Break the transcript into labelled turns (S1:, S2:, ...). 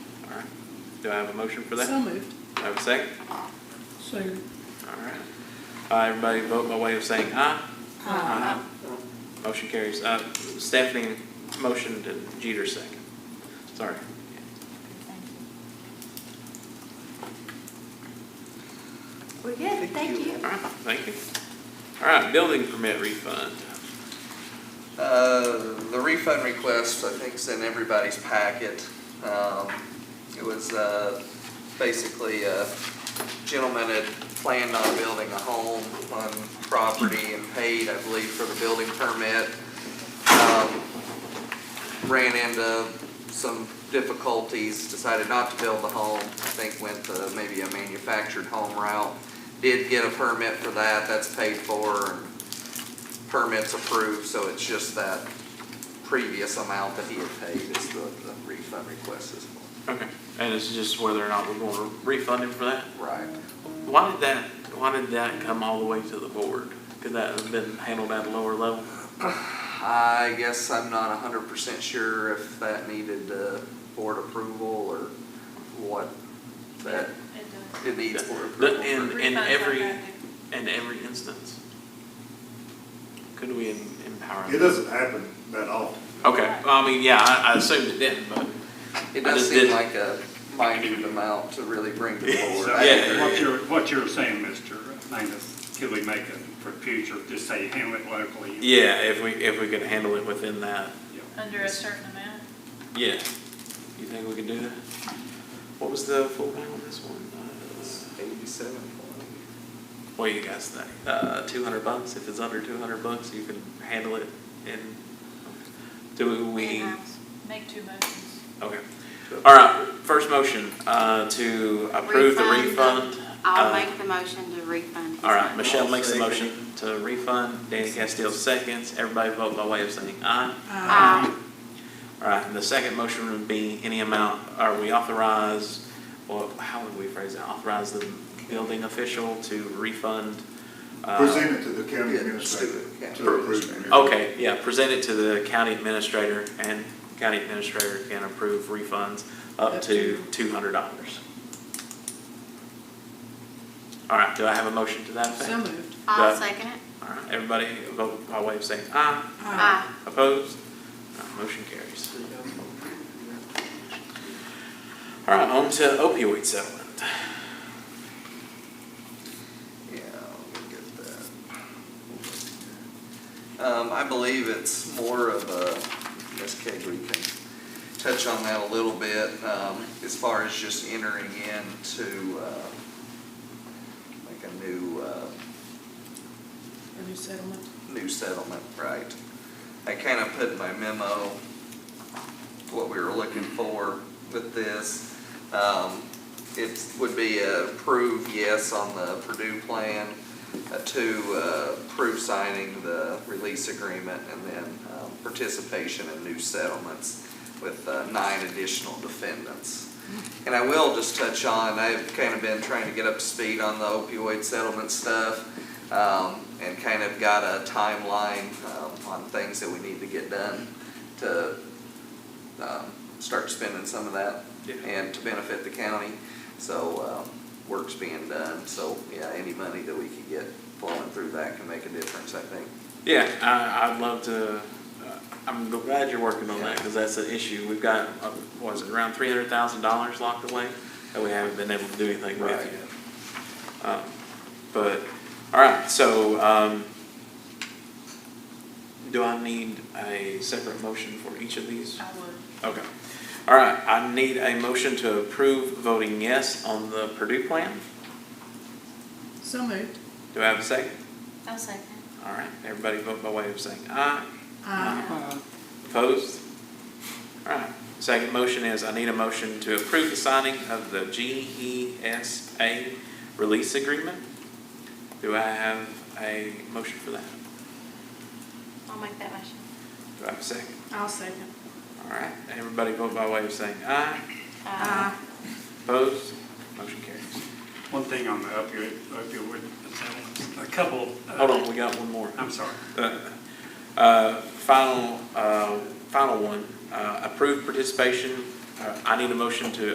S1: Do I have a motion for that?
S2: So moved.
S1: Do I have a second?
S2: Second.
S1: All right. Uh, everybody vote by way of saying aye.
S3: Uh,
S1: Motion carries. Uh, Stephanie motioned and Jeter second. Sorry.
S3: We're good, thank you.
S1: All right, thank you. All right, building permit refund.
S4: Uh, The refund request, I think, is in everybody's packet. Um, It was uh, basically a gentleman had planned on building a home on property and paid, I believe, for the building permit. Um, Ran into some difficulties, decided not to build the home, I think went to maybe a manufactured home route. Did get a permit for that, that's paid for, and permits approved, so it's just that previous amount that he had paid is the the refund request is for.
S1: Okay. And it's just whether or not we're going to refund him for that?
S4: Right.
S1: Why did that, why did that come all the way to the board? Could that have been handled at a lower level?
S4: I guess I'm not hundred percent sure if that needed uh, board approval or what that it needs board approval.
S1: In,
S4: for.
S1: in every, in every instance? Could we em- empower him?
S5: It doesn't happen that often.
S1: Okay, well, I mean, yeah, I, I assumed it didn't, but,
S4: It
S1: I
S4: does
S1: just
S4: seem
S1: didn't-
S4: like a minute amount to really bring to the board.
S6: So
S4: I
S1: Yeah.
S6: what
S4: agree.
S6: you're, what you're saying, Mr. Magnus, could we make it for future, just say handle it locally?
S1: yeah, if we, if we could handle it within that,
S2: Under a certain amount?
S1: yeah. You think we could do that? What was the full amount on this one?
S4: Eighty-seven point.
S1: Uh, What do you guys think? Uh, two hundred bucks, if it's under two hundred bucks, you can handle it in, do we?
S3: In-house.
S2: Make two motions.
S1: Okay, all right, first motion, uh, to approve the
S3: Refund.
S1: refund.
S3: I'll
S1: Uh,
S3: make the motion to refund. his
S1: All right,
S3: money.
S1: Michelle makes the motion to refund, Danny Castillo seconds, everybody vote by way of saying aye.
S3: Aye.
S1: Um, All right, and the second motion would be any amount, are we authorized, or how would we phrase that, authorize the building official to refund? uh,
S5: Present it to the county
S4: Yeah,
S5: administrator
S4: student, yeah.
S5: to approve.
S1: Okay, yeah, present it to the county administrator, and county administrator can approve refunds up
S2: Up
S1: to
S2: to-
S1: two hundred dollars. All right, do I have a motion to that effect?
S2: So moved.
S3: I'll
S1: That-
S3: second it.
S1: All right, everybody vote by way of saying aye.
S3: Uh, Aye.
S1: Opposed? All right, Motion carries. All right, on to opioid settlement.
S4: Yeah, let me get that. Um, I believe it's more of a, Ms. Kegley can touch on that a little bit, um, as far as just entering into, uh, like a new, uh,
S2: A new settlement?
S4: new settlement, right? I kind of put in my memo what we were looking for with this. Um, It would be a approve yes on the Purdue plan, a two, uh, approve signing the release agreement, and then um, participation in new settlements with uh, nine additional defendants. And I will just touch on, I've kind of been trying to get up to speed on the opioid settlement stuff, um, and kind of got a timeline, um, on things that we need to get done to, um, start spending some of that
S1: Yeah.
S4: and to benefit the county. So, um, work's being done, so, yeah, any money that we can get flowing through that can make a difference, I think.
S1: Yeah, I, I'd love to, uh, I'm glad you're working on that, because that's an issue. We've got, uh, what is it, around three hundred thousand dollars locked away that we haven't been able to do anything with
S4: Right.
S1: yet. Um, But, all right, so, um, do I need a separate motion for each of these?
S2: I would.
S1: Okay. All right, I need a motion to approve voting yes on the Purdue plan.
S2: So moved.
S1: Do I have a second?
S3: I'll second.
S1: All right, everybody vote by way of saying aye.
S2: Uh,
S1: Uh-huh.
S2: Aye.
S1: Opposed? All right, second motion is I need a motion to approve the signing of the GESA release agreement. Do I have a motion for that?
S3: I'll make that motion.
S1: Do I have a second?
S2: I'll second.
S1: All right, everybody vote by way of saying aye.
S3: Uh,
S1: Opposed? Motion carries.
S6: One thing on the opioid, opioid settlements, a couple. uh,
S1: Hold on, we got one more.
S6: I'm sorry.
S1: Uh, Final, uh, final one, uh, approved participation, Uh, I need a motion to